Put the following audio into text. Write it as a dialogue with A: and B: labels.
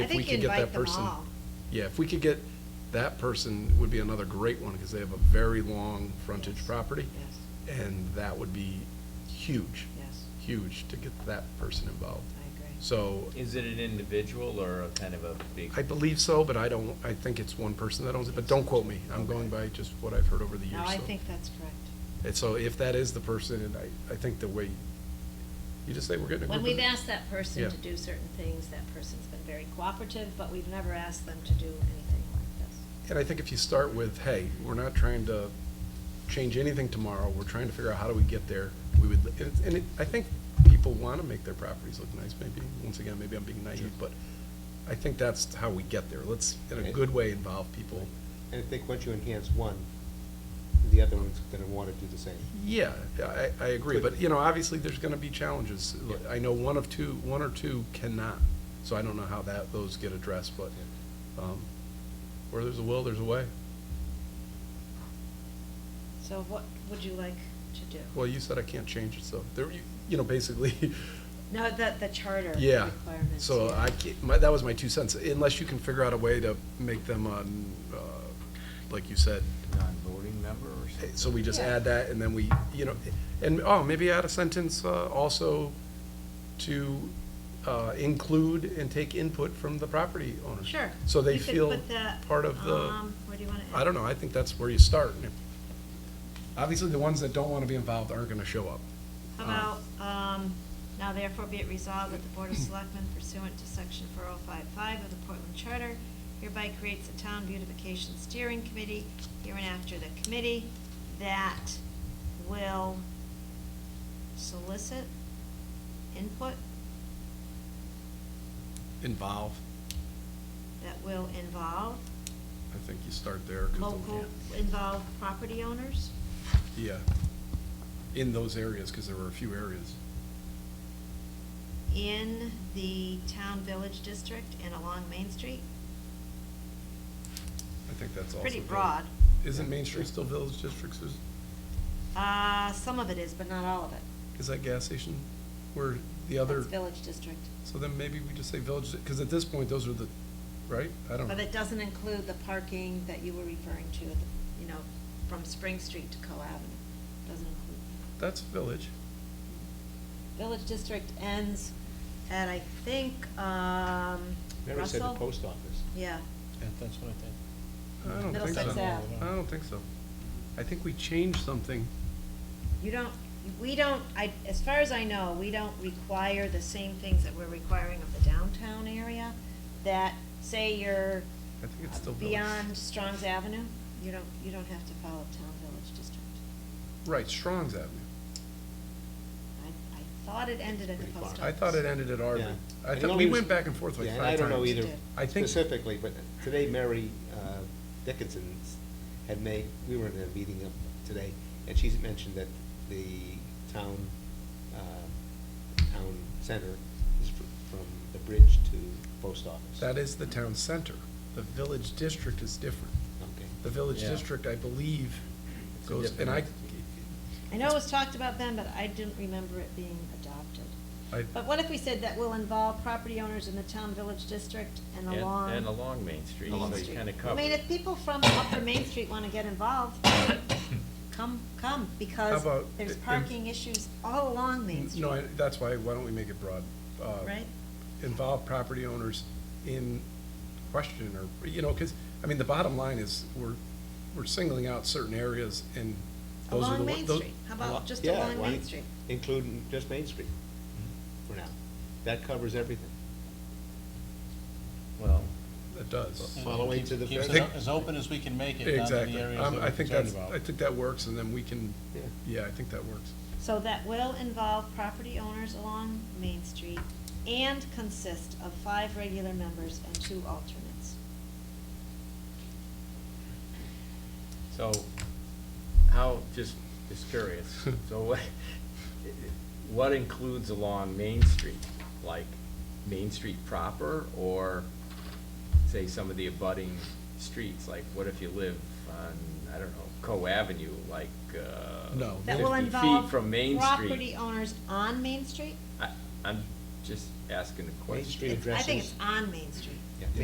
A: I
B: if we
A: think
B: could get
A: invite
B: that
A: them
B: person.
A: all.
B: Yeah, if we could get that person, would be another great one, because they have a very long frontage
A: Yes.
B: property.
A: Yes,
B: And that would be huge,
A: yes,
B: huge to get that person involved.
A: I agree.
B: So
C: Is it an individual or a kind of a big?
B: I believe so, but I don't, I think it's one person that owns it, but don't quote me. I'm going by just what I've heard over the years.
A: No, I
B: so.
A: think that's correct.
B: And so if that is the person, and I, I think the way, you just say we're getting a group
D: When
B: of
D: we've
B: them."
D: asked that person
B: Yeah.
D: to do certain things, that person's been very cooperative, but we've never asked them to do anything like this.
B: And I think if you start with, hey, we're not trying to change anything tomorrow, we're trying to figure out how do we get there, we would, and it- and it, I think people want to make their properties look nice, maybe, once again, maybe I'm being naive, but I think that's how we get there. Let's, in a good way, involve people.
E: And I think once you enhance one, the other one's gonna wanna do the same.
B: Yeah, I, I agree, but, you know, obviously, there's gonna be challenges.
E: Yeah.
B: I know one of two, one or two cannot, so I don't know how that, those get addressed, but, um, where there's a will, there's a way.
A: So what would you like to do?
B: Well, you said I can't change it, so, there, you- you know, basically,
A: No, the, the charter
B: Yeah,
A: requirements.
B: so
A: yeah.
B: I, ca- my, that was my two cents, unless you can figure out a way to make them, um, uh, like you said,
C: Non-voting member or something?
B: so we just
A: Yeah.
B: add that, and then we, you know, and, oh, maybe add a sentence, uh, also to, uh, include and take input from the property owner.
A: Sure.
B: So they
A: You could
B: feel
A: put that,
B: part of the,
A: um, Where do you want to?
B: I don't know, I think that's where you start. And if- Obviously, the ones that don't wanna be involved aren't gonna show up.
A: How about, um, now therefore be it resolved that the Board of Selectmen pursuant to section four oh five five of the Portland Charter hereby creates a town beautification steering committee, hereinafter the committee that will solicit input,
B: Involve.
A: that will involve
B: I think you start there. 'cause the-
A: local, involve property owners.
B: Yeah, in those areas, because there were a few areas.
A: in the town village district and along Main Street.
B: I think that's also.
A: Pretty
B: vill-
A: broad.
B: Isn't Main Street still Village Districts? Is,
A: Uh, some of it is, but not all of it.
B: is that gas station where the other,
A: It's village district.
B: so then maybe we just say Village, because at this point, those are the, right? I don't know.
A: But it doesn't include the parking that you were referring to, you know, from Spring Street to Co Avenue. Doesn't include.
B: That's Village.
A: that. Village district ends at, I think, um,
E: Mary said the
A: Russell?
E: post office.
A: Yeah,
C: That's what I think.
B: I don't think so.
A: Middlesex Ave.
B: I don't think so. I think we changed something.
A: you don't, we don't, I, as far as I know, we don't require the same things that we're requiring of the downtown area. That, say you're
B: I think it's still Village.
A: Beyond Strong's Avenue, you don't, you don't have to follow Town Village District.
B: Right, Strong's Avenue.
A: I, I thought it endted at the
E: Pretty
A: post office.
E: far.
B: I thought it ended at Arden.
E: Yeah.
B: I
E: And
B: thought,
E: all
B: we
E: these-
B: went back and forth like
E: Yeah,
B: five times.
E: and I don't know either
A: Did.
B: I think-
E: specifically, but today Mary uh, Dickinson had made, we were in a meeting up today, and she's mentioned that the town, uh, town center is fr- from the bridge to post office.
B: That is the town center. The Village District is different.
E: Okay.
B: The village
C: Yeah.
B: district, I believe,
C: It's a
B: goes, and
C: different
B: I,
C: entity.
A: I know it was talked about then, but I didn't remember it being adopted.
B: I,
A: But what if we said that will involve property owners in the Town Village District and
C: And-
A: along?
C: And along Main Street,
A: Main
C: so you
A: Street.
C: kind of cover.
A: I mean, if people from Upper Main Street want to get involved, come, come, because
B: about
A: there's
B: i- in-
A: parking issues all along Main Street,
B: no, I- that's why, why don't we make it broad? Uh,
A: right?
B: Involve property owners in question, or, you know, because, I mean, the bottom line is, we're, we're singling out certain areas, and those
A: Along
B: are the. one-
A: Main
B: tho-
A: Street, how about just
E: Yeah,
A: along
E: why
A: Main
E: not
A: Street?
E: Include just Main Street for now. That covers everything.
C: Well,
B: It does.
F: And
E: Following
F: keeps-
E: to the
F: Keeps
B: very-
F: it o- as open as we can make it, down to the
B: Exactly.
F: areas
B: Um,
F: that
B: I
F: we're
B: think
F: concerned
B: that's,
F: about.
B: I think that works, and then we can,
E: Yeah.
B: yeah, I think that works.
A: So that will involve property owners along Main Street and consist of five regular members and two alternates.
C: so, how, just, just curious, so what, what includes along Main Street? Like, Main Street proper, or say some of the abutting streets? Like, what if you live on, I don't know, Co Avenue, like, uh.
B: No.
A: That will
C: 50 feet
A: involve
C: from Main Street.
A: property owners on Main Street?
C: I, I'm just asking a
E: Main
C: question.
E: Street
A: It's- I think
E: addresses,
A: it's on Main Street.